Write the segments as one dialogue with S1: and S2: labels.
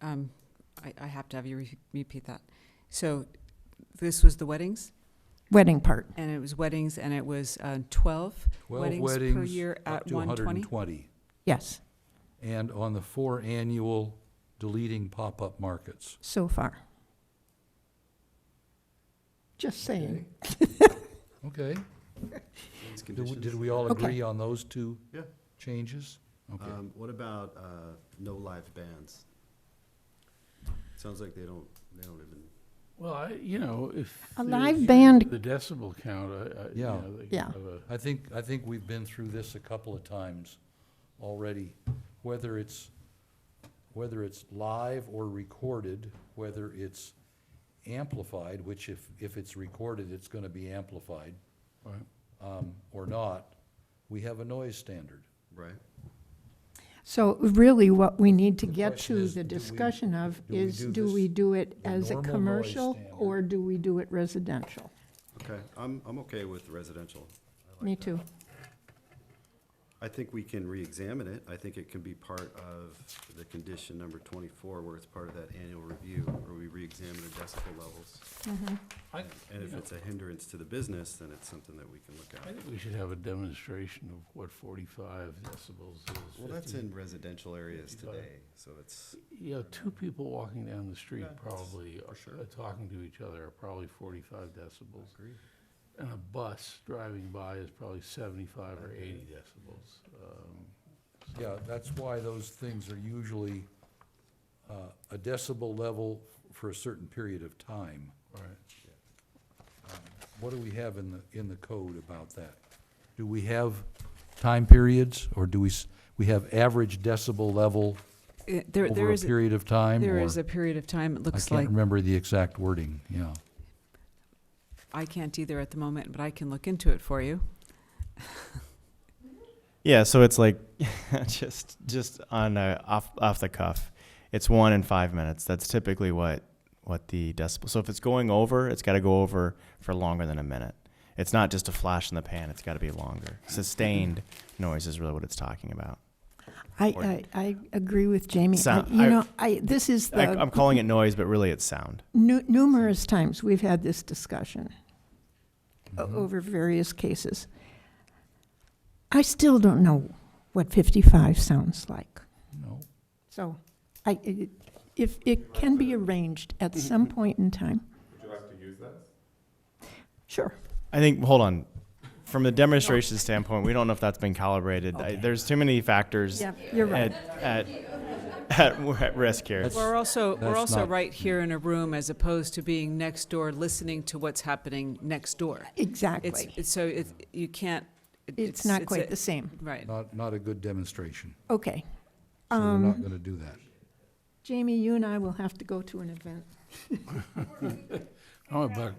S1: um, I, I have to have you re- repeat that. So this was the weddings,
S2: Wedding part.
S1: and it was weddings, and it was uh, 12
S3: Twelve
S1: weddings per
S3: weddings,
S1: year
S3: up
S1: at
S3: to
S1: 120?
S3: 120.
S2: Yes,
S3: And on the four annual, deleting pop-up markets.
S2: so far. Just saying.
S3: Okay.
S4: Those
S3: Did we-
S4: conditions.
S3: Did we all
S2: Okay.
S3: agree on those two
S4: Yeah.
S3: changes? Okay.
S4: Um, What about uh, no live bands? Sounds like they don't, they don't even,
S5: Well, I, you know, if.
S2: A
S5: they
S2: live
S5: reduce
S2: band-
S5: The decibel count, I, I, you
S3: Yeah.
S5: know, they could
S2: Yeah.
S5: have a.
S3: I think, I think we've been through this a couple of times already, whether it's, whether it's live or recorded, whether it's amplified, which if, if it's recorded, it's gonna be amplified,
S5: Right.
S3: um, or not, we have a noise standard.
S4: right?
S2: So really, what we need to
S3: The
S2: get
S3: question
S2: to
S3: is,
S2: the
S3: do we-
S2: discussion of
S3: do we
S2: is,
S3: do
S2: do
S3: this-
S2: we do it
S3: the
S2: as a
S3: normal noise
S2: commercial
S3: standard?
S2: or do we do it residential?
S4: Okay, I'm, I'm okay with residential. I like
S2: Me
S4: that.
S2: too.
S4: I think we can reexamine it. I think it can be part of the condition number twenty-four, where it's part of that annual review, where we reexamine the decibel levels.
S5: I,
S4: And
S5: you
S4: if
S5: know,
S4: it's a hindrance to the business, then it's something that we can look
S5: I
S4: at.
S5: think we should have a demonstration of what forty-five decibels is.
S4: Well, that's
S5: 50
S4: in residential areas today, so it's,
S5: You know, two people walking down the street
S4: Yeah,
S5: probably,
S4: for
S5: are-
S4: sure.
S5: are talking to each other are probably forty-five decibels.
S4: agree.
S5: And a bus driving by is probably seventy-five or eighty decibels. Um,
S3: Yeah, that's why those things are usually, uh, a decibel level for a certain period of time.
S5: Right.
S3: What do we have in the, in the code about that? Do we have time periods, or do we, s- we have average decibel level
S1: Uh, There, there
S3: over a
S1: is,
S3: period of time?
S1: there
S3: or-
S1: is a period of time, it
S3: I
S1: looks
S3: can't
S1: like.
S3: remember the exact wording, yeah.
S1: I can't either at the moment, but I can look into it for you.
S6: Yeah, so it's like just just on a, off off the cuff. It's one in five minutes. That's typically what what the decibel. So if it's going over, it's got to go over for longer than a minute. It's not just a flash in the pan. It's got to be longer. Sustained noise is really what it's talking about. Or-
S2: I, I, I agree with Jamie. I-
S6: Sound-
S2: You
S6: I-
S2: know, I, this is
S6: I,
S2: the,
S6: I'm calling it noise, but really it's sound.
S2: nu- numerous times we've had this discussion
S1: Oh,
S2: o-
S3: Mm-hmm.
S2: over various cases. I still don't know what 55 sounds like.
S3: No,
S2: So I, it- if it can be arranged at some point in time. Would you like to use that? Sure.
S6: I think. Hold on. From the demonstration standpoint, we don't know if that's been calibrated. I,
S2: Okay.
S6: there's too many factors
S2: Yeah, you're right.
S6: at, at, at at risk here.
S1: We're also, we're
S3: that's
S1: also
S3: not-
S1: right here in a room as opposed to being next door, listening to what's happening next door. It's,
S2: Exactly.
S1: it's, so it's, you can't. it-
S2: It's not
S1: a-
S2: quite the same.
S1: Right.
S3: not, not a good demonstration,
S2: Okay.
S3: so we're
S1: Um,
S3: not gonna do that.
S2: Jamie, you and I will have to go to an event.
S5: I'm about,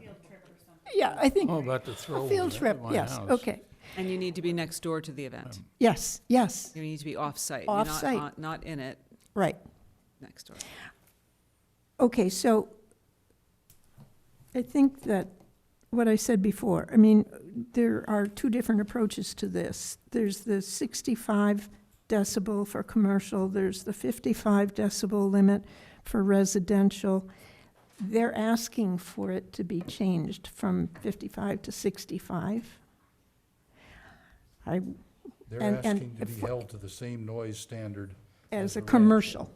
S2: Yeah, I think,
S5: I'm about to throw
S2: a
S5: one
S2: field
S5: at
S2: trip,
S5: my
S2: yes,
S5: house.
S2: okay.
S1: And you need to be next door to the
S3: Um,
S1: event.
S2: Yes, yes,
S1: You need to be off-site. You're not
S2: Off-site.
S1: on- Not in it,
S2: right.
S1: next door.
S2: Okay, so I think that what I said before, I mean, there are two different approaches to this. There's the 65 decibel for commercial, there's the 55 decibel limit for residential. They're asking for it to be changed from 55 to 65. I, And-
S3: They're
S2: and
S3: asking to be
S2: if-
S3: held to the same noise standard,
S2: as
S3: As a
S2: a
S3: res.
S2: commercial,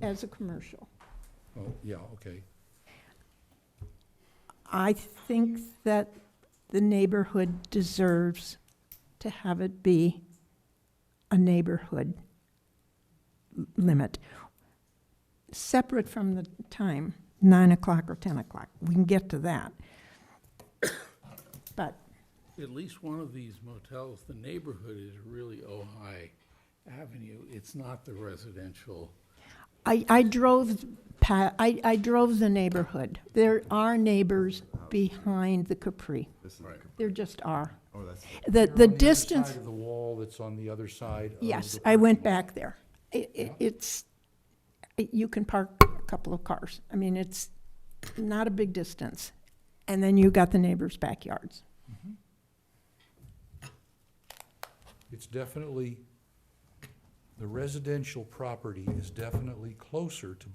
S2: as a commercial.
S3: oh, yeah, okay.
S2: I think that the neighborhood deserves to have it be a neighborhood l- limit, separate from the time, nine o'clock or ten o'clock. We can get to that. But
S5: At least one of these motels, the neighborhood is really Ojai Avenue. It's not the residential.
S2: I, I drove, pa- I, I drove the neighborhood. There are neighbors behind the Capri.
S4: This is,
S2: There just are.
S4: oh, that's,
S2: The,
S3: They're
S2: the
S3: on other
S2: distance.
S3: Side of the wall that's on the other side of
S2: Yes,
S3: the
S2: I went
S3: parking lot.
S2: back there. I- I- It's, you can park a couple of cars. I mean, it's not a big distance. And then you got the neighbors' backyards.
S3: It's definitely, the residential property is definitely closer to